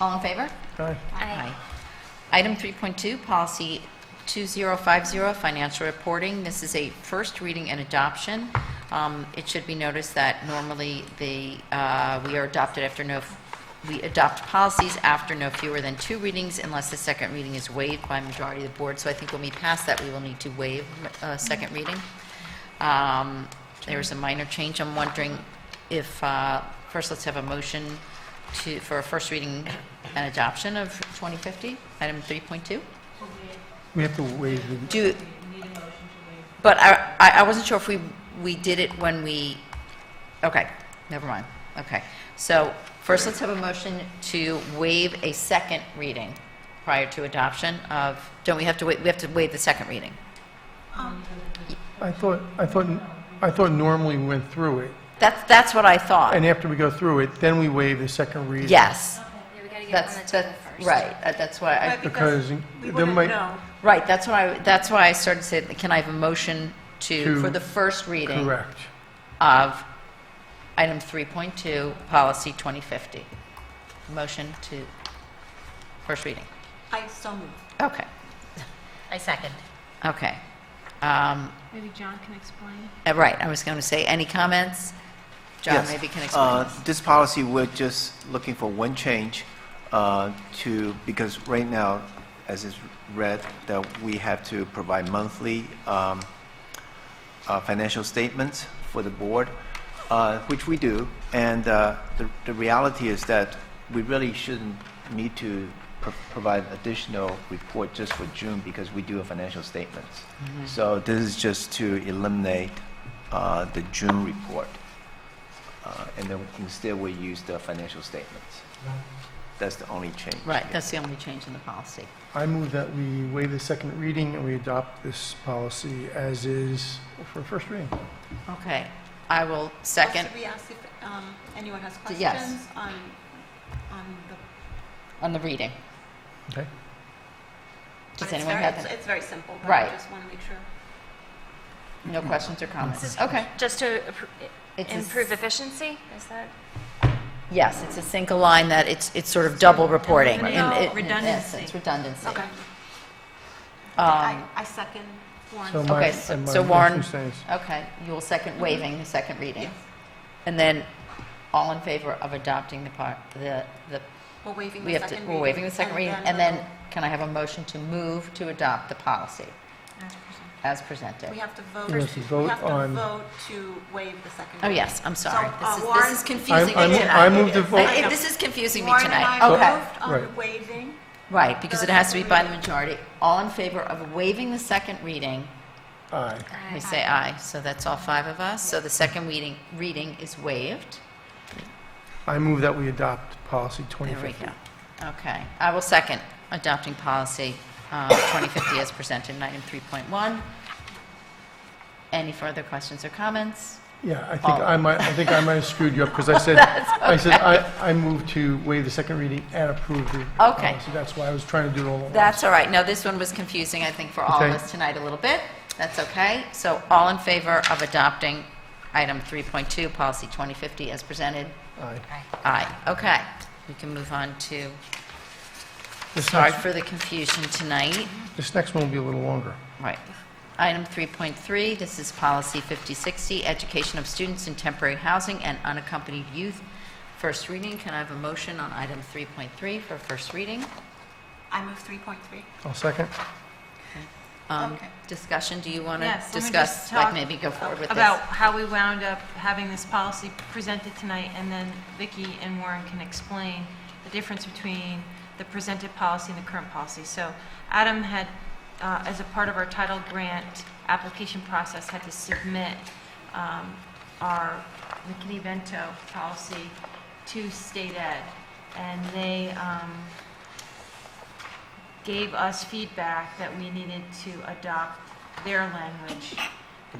All in favor? Aye. Aye. Item 3.2, Policy 2050, Financial Reporting. This is a first reading and adoption. Um, It should be noticed that normally the, uh, we are adopted after no, we adopt policies after no fewer than two readings unless the second reading is waived by majority of the board. So I think when we pass that, we will need to waive uh, second reading. Um, There is a minor change. I'm wondering if, uh, first, let's have a motion to, for a first reading and adoption of 2050, item 3.2. We have to waive the, Do, but I, I I wasn't sure if we, we did it when we, okay, never mind, okay. So first, let's have a motion to waive a second reading prior to adoption of, don't we have to wait, we have to waive the second reading? I thought, I thought, I thought normally we went through it, That's, that's what I thought. and after we go through it, then we waive the second reading. Yes, Yeah, we gotta get it that's, on the table that's, first. right, Uh, that's why I. Right, Because because there we wouldn't might- know. Right, that's why, I- that's why I started saying, can I have a motion to, To- for the first reading Correct. of item 3.2, policy 2050? Motion to, first reading. I so moved. Okay, I second. okay. Um, Maybe John can explain. uh, Right, I was going to say, any comments? John Yes. maybe can Uh, explain. this. This policy, we're just looking for one change uh, to, because right now, as is read, that we have to provide monthly um, uh, financial statements for the board, uh, which we do. And uh, the the reality is that we really shouldn't need to pro- provide additional report just for June because we do financial statements. So this is just to eliminate uh, the June report. Uh, And then instead, we use the financial statements. That's the only change. Right, that's the only change in the policy. I move that we waive the second reading and we adopt this policy as is for first reading. Okay, I will second Also, we asked if um, anyone has D- yes. questions on, on the. on the reading. Okay? Does but it's anyone very- have, it's- any- It's very simple, but Right. I just want to make sure. no questions or comments? Okay. Just to appro- It's a s- improve efficiency, is that? Yes, it's a single line that it's, it's sort of double reporting. Right. in- No, in- in Oh, redundancy. essence, redundancy. Okay. I Um, I second So Warren's. my- Okay, so- and my so Warren- motion stands. Okay, you will second waiving the second reading. And then, all in favor of adopting the part, the, the, We're waiving we the have to, second reading. we're waiving the second reading, and we'll- then, can I have a motion to move to adopt the policy as presented? We have to vote. We have to vote on- We have to vote to waive the second. Oh, reading. yes, I'm sorry. So, This uh, is, this Warren- is confusing I- me I- I tonight. move to vote- I- I- This is confusing me Warren and tonight. I Okay, moved right. on waiving. right, because it has to be by the majority. All in favor of waiving the second reading Aye. We say aye, so that's all five of us. So the second reading, reading is waived. I move that we adopt policy 2050. There we go. Okay. I will second adopting policy uh, 2050 as presented in item 3.1. Any further questions or comments? Yeah, I think Follow. I might, I think I might have screwed you up because I said, I said, I, I moved to waive the second reading and approve the Okay. policy. That's why I was trying to do it all at once. That's all right. No, this one was confusing, I think, for all of Okay. us tonight a little bit. That's okay. So all in favor of adopting item 3.2, policy 2050 as presented? Aye. Aye. Okay. We can move on to, This sorry next, for the confusion tonight. this next one will be a little longer. Right. Item 3.3, this is Policy 5060, Education of Students in Temporary Housing and Unaccompanied Youth. First reading, can I have a motion on item 3.3 for first reading? I move 3.3. I'll second. Um, Okay. Discussion, do you want to Yes, let me discuss, just like talk maybe go forward with this? About how we wound up having this policy presented tonight, and then Vicki and Warren can explain the difference between the presented policy and the current policy. So Adam had, uh, as a part of our title grant application process, had to submit um, our McKinney-Vento policy to state ed, and they um, gave us feedback that we needed to adopt their language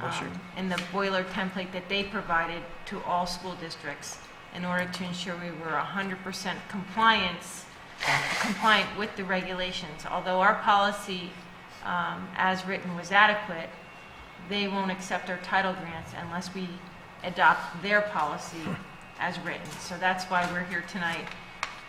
um, in the boiler template that they provided to all school districts in order to ensure we were 100% compliance, compliant with the regulations. Although our policy, um, as written, was adequate, they won't accept our title grants unless we adopt their policy as written. So that's why we're here tonight